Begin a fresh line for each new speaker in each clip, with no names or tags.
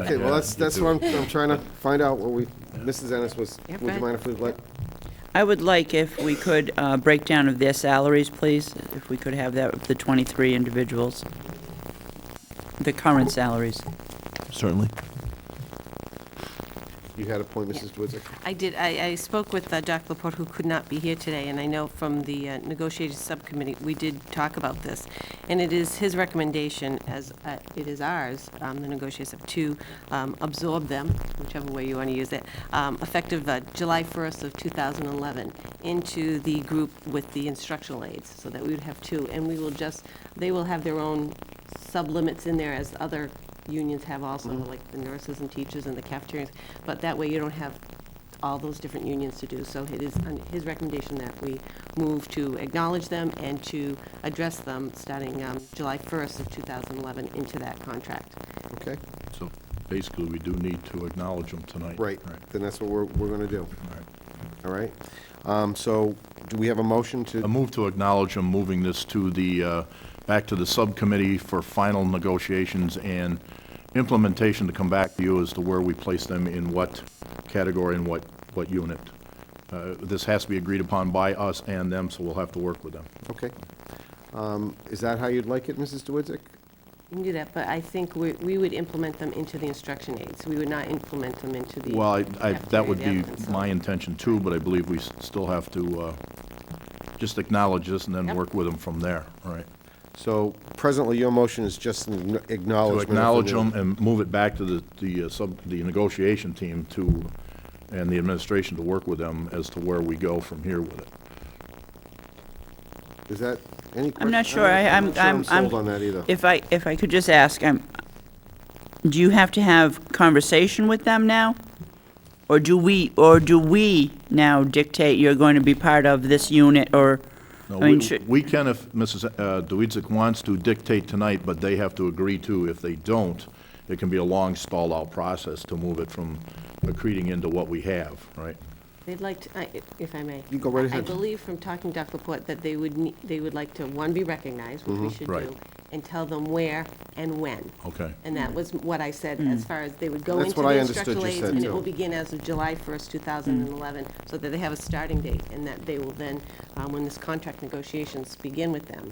Okay, well, that's, that's what I'm, I'm trying to find out, what we, Mrs. Ennis was,
Yeah,
would you
fine.
mind if we let,
I would like if we could, uh, break down of their salaries, please, if we could have that, with the 23 individuals, the current salaries.
Certainly.
you had a point, Mrs. Dwitzik?
I did, I, I spoke with uh, Dr. Laporte, who could not be here today, and I know from the uh, negotiated subcommittee, we did talk about this. And it is his recommendation, as uh, it is ours, um, the negotiated, sub, to um, absorb them, whichever way you want to use it, um, effective uh, July 1st of 2011, into the group with the instructional aides, so that we would have two. And we will just, they will have their own sublimits in there as other unions have also, like the nurses and teachers and the cafeterias. But that way, you don't have all those different unions to do. So it is on his recommendation that we move to acknowledge them and to address them starting um, July 1st of 2011 into that contract.
Okay,
So basically, we do need to acknowledge them tonight.
right,
Right.
then that's what we're, we're gonna do,
All right.
all right? Um, so, do we have a motion to?
A move to acknowledge them, moving this to the, uh, back to the subcommittee for final negotiations and implementation to come back to you as to where we place them in what category and what, what unit. Uh, This has to be agreed upon by us and them, so we'll have to work with them.
Okay. Um, Is that how you'd like it, Mrs. Dwitzik?
You can do that, but I think we we would implement them into the instruction aids. We would not implement them into the.
Well, I, I, that would
cafeteria,
be
the ovens, so-
my intention too, but I believe we s- still have to, uh, just acknowledge this and then
Yep.
work with them from there, all right?
So presently, your motion is just an
To
acknowledgement. of the
acknowledge
new-
them and move it back to the, the uh, sub, the negotiation team to, and the administration to work with them as to where we go from here with it.
Is that any?
I'm
question-
not sure, I, I'm,
not sure
I'm,
I'm
I'm.
sold on that either.
If I, if I could just ask, um, do you have to have conversation with them now? Or do we, or do we now dictate you're going to be part of this unit, or,
No,
I mean,
we-
should,
We can if Mrs. uh, Dwidzik wants to dictate tonight, but they have to agree to. If they don't, it can be a long stall-out process to move it from accreting into what we have, right?
They'd like, to- I- if I may.
You go right
I-
ahead.
I believe from talking to Dr. Laporte that they would, nee- they would like to, one, be recognized, which we
Mm-hmm.
should
right.
do, and tell them where and when.
Okay.
And that was what I said, as far as they would go
Mm. That's
into
what
the
I understood
instructional
you
aids,
said,
and it
too. Mm.
will begin as of July 1st, 2011, so that they have a starting date, and that they will then, um, when this contract negotiations begin with them,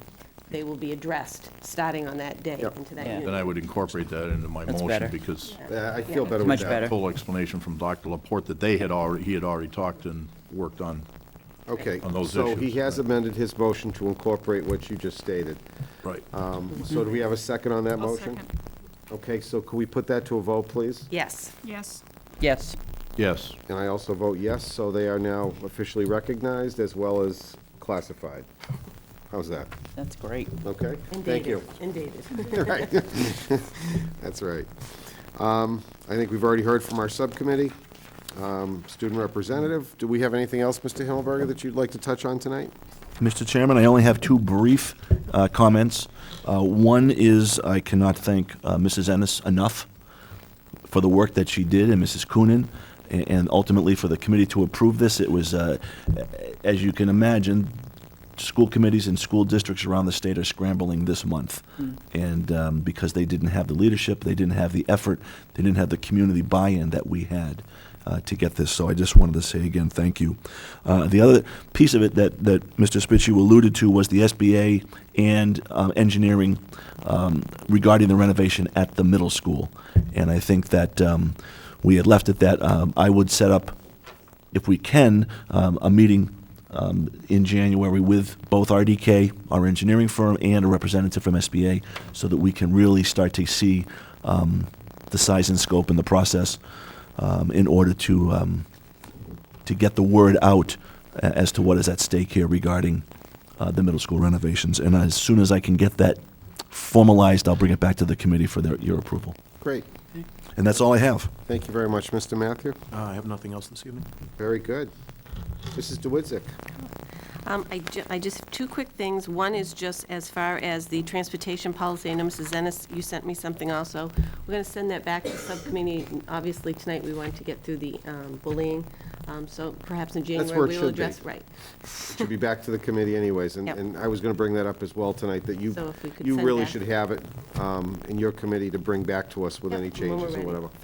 they will be addressed, starting on that day
Yep.
into that
Yeah.
unit.
Then I would incorporate that into my
That's
motion
better.
because
Yeah, I feel better
Yeah.
with that.
Much better.
full explanation from Dr. Laporte that they had already, he had already talked and worked on.
Okay.
on those
So he
issues,
has amended his motion to incorporate what you just stated.
Right.
Um, So do we have a second on that
I'll
motion?
second.
Okay, so can we put that to a vote, please?
Yes.
Yes,
yes?
Yes.
And I also vote yes, so they are now officially recognized as well as classified. How's that?
That's great.
Okay? Thank
and dated,
you.
And dated.
That's right. Um, I think we've already heard from our subcommittee, um, student representative. Do we have anything else, Mr. Himmelberger, that you'd like to touch on tonight?
Mr. Chairman, I only have two brief uh, comments. Uh, One is I cannot thank uh, Mrs. Ennis enough for the work that she did, and Mrs. Coonan, a- and ultimately for the committee to approve this. It was, uh, a- as you can imagine, school committees and school districts around the state are scrambling this month. And um, because they didn't have the leadership, they didn't have the effort, they didn't have the community buy-in that we had uh, to get this. So I just wanted to say again, thank you. Uh, The other piece of it that, that Mr. Spitzu alluded to was the SBA and um, engineering um, regarding the renovation at the middle school. And I think that um, we had left it that um, I would set up if we can, um, a meeting um, in January with both RDK, our engineering firm, and a representative from SBA, so that we can really start to see um, the size and scope and the process um, in order to, um, to get the word out a- as to what is at stake here regarding uh, the middle school renovations. And as soon as I can get that formalized, I'll bring it back to the committee for their, your approval.
Great.
And that's all I have.
Thank you very much, Mr. Matthew.
Uh, I have nothing else this evening.
Very good. Mrs. DeWitzik?
Um, I ju- I just, two quick things. One is just as far as the transportation policy, I know Mrs. Ennis, you sent me something also. We're going to send that back to subcommittee. Obviously, tonight, we wanted to get through the um, bullying, Um, so perhaps in
That's
January,
where it
we
should be.
will address. Right.
It Should be back to the committee anyways, and,
Yep.
and I was gonna bring that up as well tonight, that you,
So if we could
you
send
really
back-
should have it, um, in your committee to bring back to us with
Yep,
any
when we're
changes or
ready.
whatever.